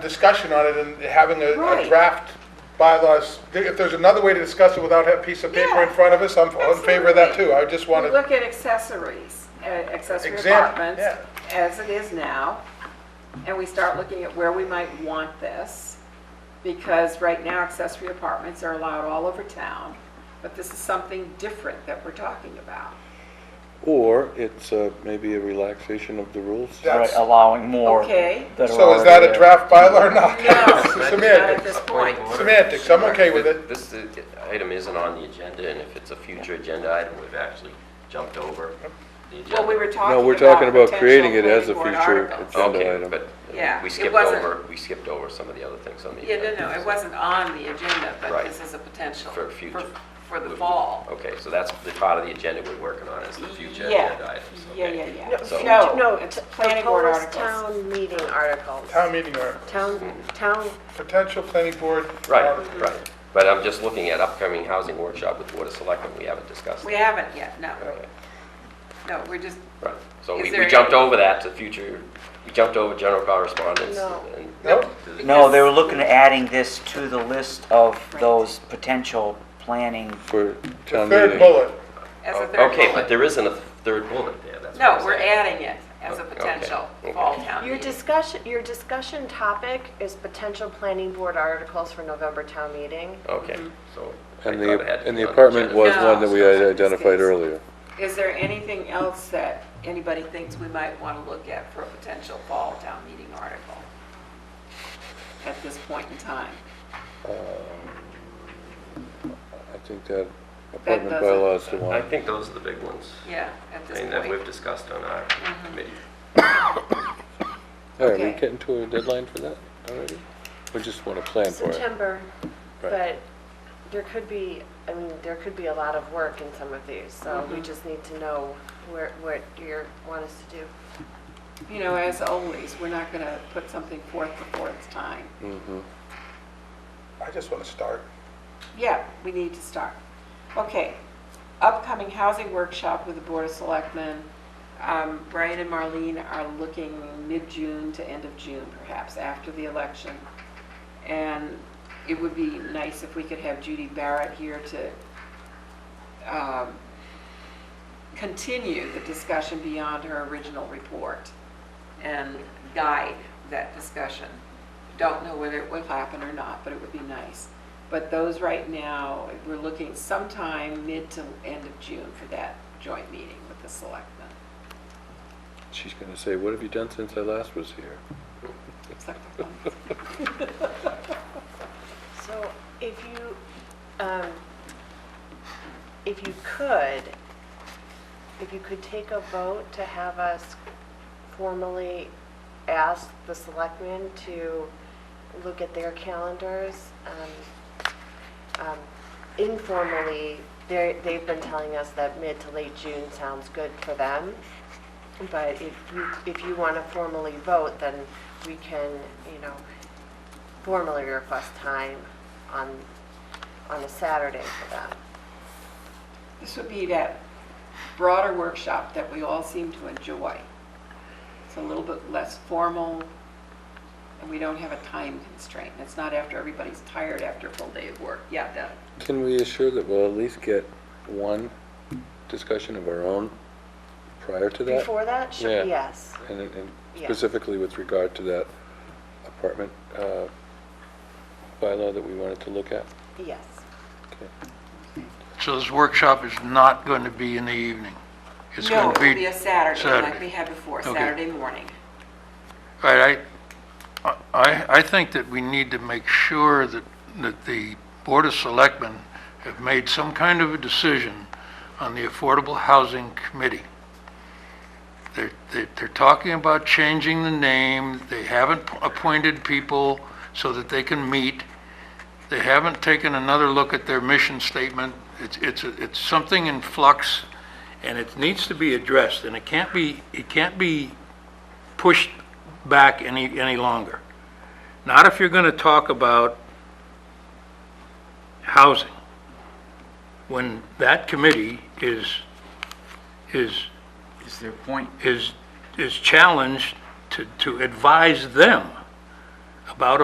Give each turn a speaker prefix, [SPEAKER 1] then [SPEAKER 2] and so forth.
[SPEAKER 1] discussion on it and having a- a
[SPEAKER 2] Right.
[SPEAKER 1] draft bylaws. If there's another way to discuss it without a piece of paper in
[SPEAKER 2] Yeah,
[SPEAKER 1] front of us, I'm in favor of that too. I just
[SPEAKER 2] We
[SPEAKER 1] wanted,
[SPEAKER 2] look at accessories, uh, accessory
[SPEAKER 1] Example,
[SPEAKER 2] apartments,
[SPEAKER 1] yeah.
[SPEAKER 2] as it is now, and we start looking at where we might want this, because right now accessory apartments are allowed all over town, but this is something different that we're talking about.
[SPEAKER 3] Or it's uh, maybe a relaxation of the rules.
[SPEAKER 1] Yeah. That's-
[SPEAKER 4] Right, allowing more.
[SPEAKER 2] Okay.
[SPEAKER 4] that are
[SPEAKER 1] so is that a
[SPEAKER 4] already
[SPEAKER 1] draft bylaw or not?
[SPEAKER 2] No, not at
[SPEAKER 1] Semantics.
[SPEAKER 2] this point.
[SPEAKER 1] Semantics, I'm okay with it.
[SPEAKER 5] This is- item isn't on the agenda, and if it's a future agenda item, we've actually jumped over the
[SPEAKER 2] Well, we
[SPEAKER 5] agenda.
[SPEAKER 2] were talking about.
[SPEAKER 3] No, we're talking about
[SPEAKER 2] potential
[SPEAKER 3] creating it as a
[SPEAKER 2] planning board
[SPEAKER 3] future
[SPEAKER 2] articles.
[SPEAKER 3] agenda
[SPEAKER 5] Okay,
[SPEAKER 3] item.
[SPEAKER 5] but
[SPEAKER 2] Yeah,
[SPEAKER 5] we
[SPEAKER 2] it
[SPEAKER 5] skipped
[SPEAKER 2] wasn't-
[SPEAKER 5] over, we skipped over some of the other things on the
[SPEAKER 2] Yeah,
[SPEAKER 5] agenda.
[SPEAKER 2] no, no, it wasn't on the agenda, but
[SPEAKER 5] Right.
[SPEAKER 2] this is a potential.
[SPEAKER 5] For future.
[SPEAKER 2] For the fall.
[SPEAKER 5] Okay, so that's the part of the agenda we're working on, is the Oh, future
[SPEAKER 2] Yeah.
[SPEAKER 5] agenda items.
[SPEAKER 2] Yeah,
[SPEAKER 5] okay.
[SPEAKER 2] yeah, yeah.
[SPEAKER 5] So-
[SPEAKER 2] No,
[SPEAKER 6] No,
[SPEAKER 2] it's
[SPEAKER 6] t-
[SPEAKER 2] planning board
[SPEAKER 6] proposed
[SPEAKER 2] articles.
[SPEAKER 6] town meeting articles.
[SPEAKER 1] Town meeting or
[SPEAKER 6] Town, town,
[SPEAKER 1] potential planning board.
[SPEAKER 5] Right, right. But I'm just looking at upcoming housing workshop with Board of Selectmen, we haven't discussed
[SPEAKER 2] We
[SPEAKER 5] that.
[SPEAKER 2] haven't yet, no,
[SPEAKER 5] Okay,
[SPEAKER 2] no, we're just,
[SPEAKER 5] Right, so
[SPEAKER 2] Is
[SPEAKER 5] we
[SPEAKER 2] there
[SPEAKER 5] we jumped over that to future, we jumped over general correspondence.
[SPEAKER 6] No.
[SPEAKER 5] and-
[SPEAKER 1] Nope.
[SPEAKER 4] there. No, they were looking at adding this to the list of those potential planning.
[SPEAKER 3] For
[SPEAKER 1] The
[SPEAKER 3] town
[SPEAKER 1] third
[SPEAKER 3] meeting.
[SPEAKER 1] bullet.
[SPEAKER 2] as a third
[SPEAKER 5] Oh, Okay, but
[SPEAKER 2] bullet.
[SPEAKER 5] there isn't a third bullet there, that's what
[SPEAKER 2] No,
[SPEAKER 5] I'm
[SPEAKER 2] we're
[SPEAKER 5] saying.
[SPEAKER 2] adding it as a
[SPEAKER 5] Okay,
[SPEAKER 2] potential
[SPEAKER 5] okay.
[SPEAKER 2] fall town
[SPEAKER 6] your
[SPEAKER 2] meeting.
[SPEAKER 6] discussion, your discussion topic is potential planning board articles for November town meeting.
[SPEAKER 5] Okay,
[SPEAKER 2] Mm-hmm.
[SPEAKER 5] so. I
[SPEAKER 3] And
[SPEAKER 5] thought it had
[SPEAKER 3] the,
[SPEAKER 5] to
[SPEAKER 3] and
[SPEAKER 5] be
[SPEAKER 3] the
[SPEAKER 5] on
[SPEAKER 3] apartment
[SPEAKER 5] agenda.
[SPEAKER 3] was one that we had identified earlier.
[SPEAKER 2] Is there anything else that anybody thinks we might want to look at for a potential fall town meeting article at this point in time?
[SPEAKER 3] I think that apartment
[SPEAKER 2] doesn't-
[SPEAKER 3] bylaw is the
[SPEAKER 5] I
[SPEAKER 3] one.
[SPEAKER 5] think those are the big ones,
[SPEAKER 2] Yeah, at
[SPEAKER 5] I
[SPEAKER 2] this
[SPEAKER 5] mean, that we've
[SPEAKER 2] point.
[SPEAKER 5] discussed on our
[SPEAKER 2] Mm-hmm.
[SPEAKER 5] committee.
[SPEAKER 3] All right, we
[SPEAKER 2] okay.
[SPEAKER 3] getting to a deadline for that already? We just want to plan for it.
[SPEAKER 6] September,
[SPEAKER 3] Right.
[SPEAKER 6] but there could be, I mean, there could be a lot of work in some of these, so
[SPEAKER 2] Mm-hmm.
[SPEAKER 6] we just need to know where, what you want us to do.
[SPEAKER 2] You know, as always, we're not going to put something forth before it's time.
[SPEAKER 1] I just want to start.
[SPEAKER 2] Yeah, we need to start. Okay, upcoming housing workshop with the Board of Selectmen. Um, Brian and Marlene are looking mid-June to end of June, perhaps, after the election. And it would be nice if we could have Judy Barrett here to um, continue the discussion beyond her original report and guide that discussion. Don't know whether it will happen or not, but it would be nice. But those right now, we're looking sometime mid to end of June for that joint meeting with the selectmen.
[SPEAKER 3] She's going to say, what have you done since I last was here?
[SPEAKER 2] Selectmen.
[SPEAKER 6] So if you, um, if you could, if you could take a vote to have us formally ask the selectmen to look at their calendars, um, um, informally, they, they've been telling us that mid to late June sounds good for them. But if you, if you want to formally vote, then we can, you know, formally request time on, on a Saturday for that.
[SPEAKER 2] This would be that broader workshop that we all seem to enjoy. It's a little bit less formal, and we don't have a time constraint. It's not after everybody's tired after a full day of work. Yeah, that,
[SPEAKER 3] Can we assure that we'll at least get one discussion of our own prior to that?
[SPEAKER 6] Before that,
[SPEAKER 3] Yeah.
[SPEAKER 6] should, yes.
[SPEAKER 3] And and
[SPEAKER 6] Yeah.
[SPEAKER 3] specifically with regard to that apartment uh, bylaw that we wanted to look at?
[SPEAKER 6] Yes.
[SPEAKER 7] So this workshop is not going to be in the evening? It's
[SPEAKER 2] No,
[SPEAKER 7] going
[SPEAKER 2] it
[SPEAKER 7] to
[SPEAKER 2] will be a Saturday, like
[SPEAKER 7] Saturday.
[SPEAKER 2] we had before,
[SPEAKER 7] Okay.
[SPEAKER 2] Saturday morning.
[SPEAKER 7] All right, I, I, I think that we need to make sure that, that the Board of Selectmen have made some kind of a decision on the Affordable Housing Committee. They're, they're- they're talking about changing the name, they haven't appointed people so that they can meet, they haven't taken another look at their mission statement, it's, it's, it's something in flux, and it needs to be addressed, and it can't be, it can't be pushed back any, any longer. Not if you're going to talk about housing, when that committee is, is,
[SPEAKER 4] Is there a point?
[SPEAKER 7] is, is challenged to, to advise them about